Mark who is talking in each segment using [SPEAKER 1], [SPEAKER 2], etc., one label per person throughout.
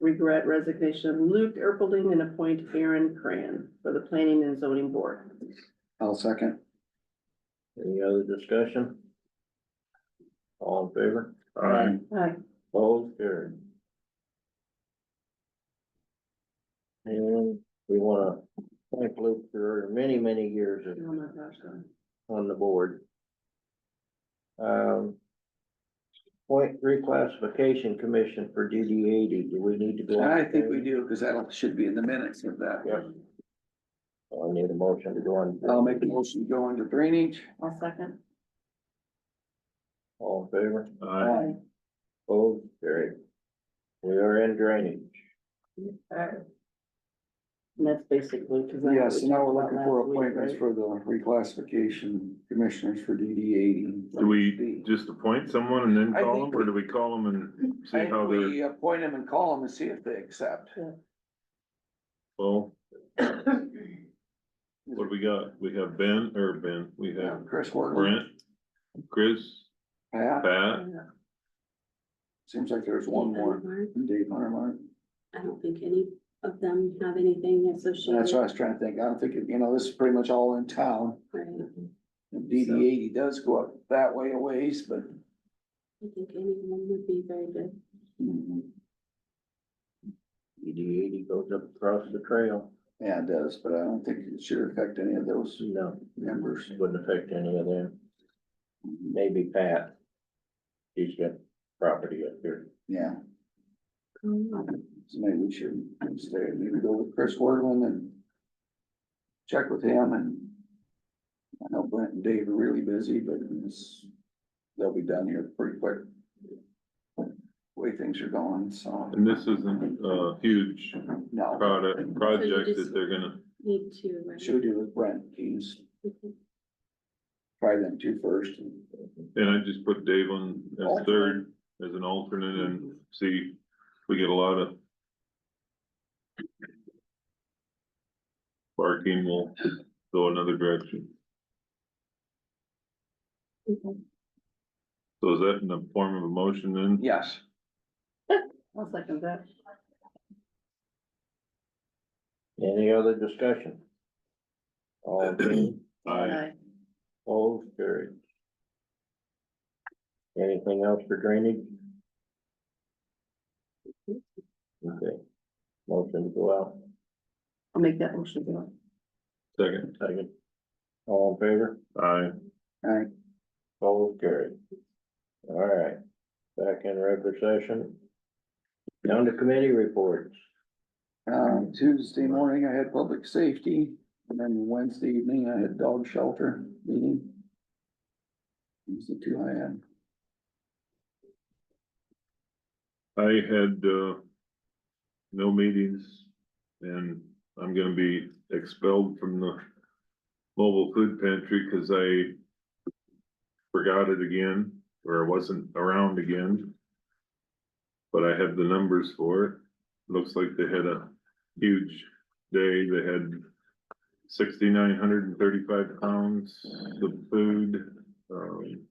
[SPEAKER 1] regret resignation of Luke Erpelding and appoint Aaron Cran for the Planning and Zoning Board.
[SPEAKER 2] I'll second.
[SPEAKER 3] Any other discussion? All in favor?
[SPEAKER 2] Aye.
[SPEAKER 1] Aye.
[SPEAKER 3] Both carried. And we wanna thank Luke for many, many years
[SPEAKER 1] Oh
[SPEAKER 3] of-
[SPEAKER 1] my gosh. no.
[SPEAKER 3] on the board. Um. Point reclassification commission for DD eighty, do we need to go?
[SPEAKER 2] I think we do, because that should be in the minutes of that.
[SPEAKER 3] Yep. Oh, I need a motion to go on.
[SPEAKER 2] I'll make a motion to go into drainage.
[SPEAKER 1] I'll second.
[SPEAKER 3] All in favor?
[SPEAKER 4] Uh,
[SPEAKER 1] Aye.
[SPEAKER 3] Both carried. We are in drainage.
[SPEAKER 1] And that's basically. 'cause I-
[SPEAKER 2] Yeah, so now we're looking for
[SPEAKER 1] Last week,
[SPEAKER 2] appointments
[SPEAKER 1] right?
[SPEAKER 2] for the reclassification commissioners for DD eighty.
[SPEAKER 4] Do we just appoint someone and then
[SPEAKER 2] I
[SPEAKER 4] call
[SPEAKER 2] think
[SPEAKER 4] them, or
[SPEAKER 2] we-
[SPEAKER 4] do we call them and
[SPEAKER 2] I
[SPEAKER 4] see how
[SPEAKER 2] think
[SPEAKER 4] they're,
[SPEAKER 2] we uh, appoint them and call them and see if they accept.
[SPEAKER 4] well, what do we got? We have Ben, or Ben, we
[SPEAKER 2] Yeah,
[SPEAKER 4] have
[SPEAKER 2] Chris Worthing,
[SPEAKER 4] Brent, Chris,
[SPEAKER 2] Pat,
[SPEAKER 4] Pat,
[SPEAKER 1] Yeah.
[SPEAKER 2] seems like there's one more, and Dave Huntermont.
[SPEAKER 5] I don't think any of them have anything
[SPEAKER 2] So
[SPEAKER 5] associated.
[SPEAKER 2] that's what I was trying to think. I don't think, you know, this is pretty much all in town.
[SPEAKER 5] Right.
[SPEAKER 2] Mm-hmm. And DD eighty does go up that way a ways, but.
[SPEAKER 5] I think anyone would be very good.
[SPEAKER 3] DD eighty goes up across the trail.
[SPEAKER 2] Yeah, it does, but I don't think it should affect any of those
[SPEAKER 3] No,
[SPEAKER 2] members.
[SPEAKER 3] wouldn't affect any of them. Maybe Pat. He's got property up here.
[SPEAKER 2] Yeah, so maybe we should stay, maybe go with Chris Worthing and check with him and I know Brent and Dave are really busy, but it's, they'll be done here pretty quick. Way things are going, so.
[SPEAKER 4] and this isn't a huge
[SPEAKER 2] No,
[SPEAKER 4] product, project that they're gonna,
[SPEAKER 5] Need to, right?
[SPEAKER 2] should we do with Brent, please? Try them two first and
[SPEAKER 4] and I just put Dave on as third, as an alternate, and see, if we get a lot of barking, we'll go another direction.
[SPEAKER 5] Okay.
[SPEAKER 4] So is that in the form of a motion then?
[SPEAKER 2] Yes.
[SPEAKER 1] I'll second that.
[SPEAKER 3] Any other discussion? All in favor?
[SPEAKER 4] Aye.
[SPEAKER 1] Aye.
[SPEAKER 3] All carried. Anything else for drainage? Okay. Motion to go out,
[SPEAKER 1] I'll make that motion. Bill.
[SPEAKER 4] Second.
[SPEAKER 3] second. All in favor?
[SPEAKER 4] Aye.
[SPEAKER 3] All carried. All right, back in regular session. Down to committee reports.
[SPEAKER 2] Um, Tuesday morning I had public safety, and then Wednesday evening I had dog shelter meeting. These are the two I had.
[SPEAKER 4] I had, uh, no meetings and I'm gonna be expelled from the mobile food pantry because I forgot it again, or I wasn't around again. But I have the numbers for it. Looks like they had a huge day. They had sixty-nine hundred and thirty-five pounds of food. Um,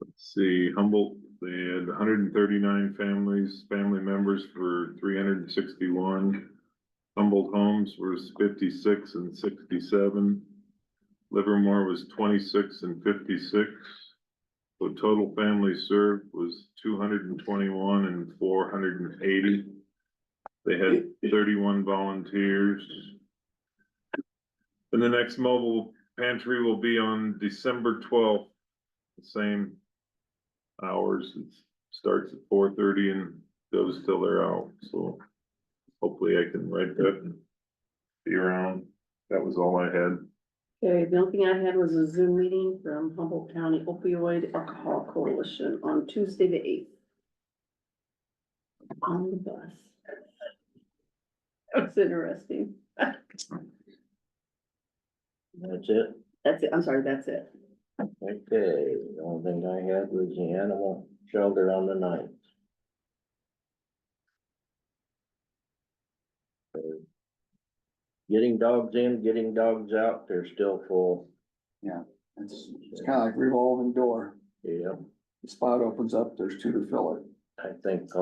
[SPEAKER 4] Let's see, Humboldt, they had hundred and thirty-nine families, family members for three hundred and sixty-one. Humboldt Homes was fifty-six and sixty-seven. Livermore was twenty-six and fifty-six. So total families served was two hundred and twenty-one and four hundred and eighty. They had thirty-one volunteers. And the next mobile pantry will be on December twelfth, the same hours. It starts at four thirty and goes till they're out, so hopefully I can write that and be around. That was all I had.
[SPEAKER 1] Okay, the only thing I had was a Zoom meeting from Humboldt County Opioid Alcohol Coalition on Tuesday, the eighth. On the bus. That was interesting.
[SPEAKER 3] That's it.
[SPEAKER 1] That's it, I'm sorry, that's it.
[SPEAKER 3] Okay, the only thing I had was the animal shelter on the ninth. Getting dogs in, getting dogs out, they're still full,
[SPEAKER 2] It's, it's kinda like revolving door.
[SPEAKER 3] yeah,
[SPEAKER 2] The spot opens up, there's two to fill it.
[SPEAKER 3] I think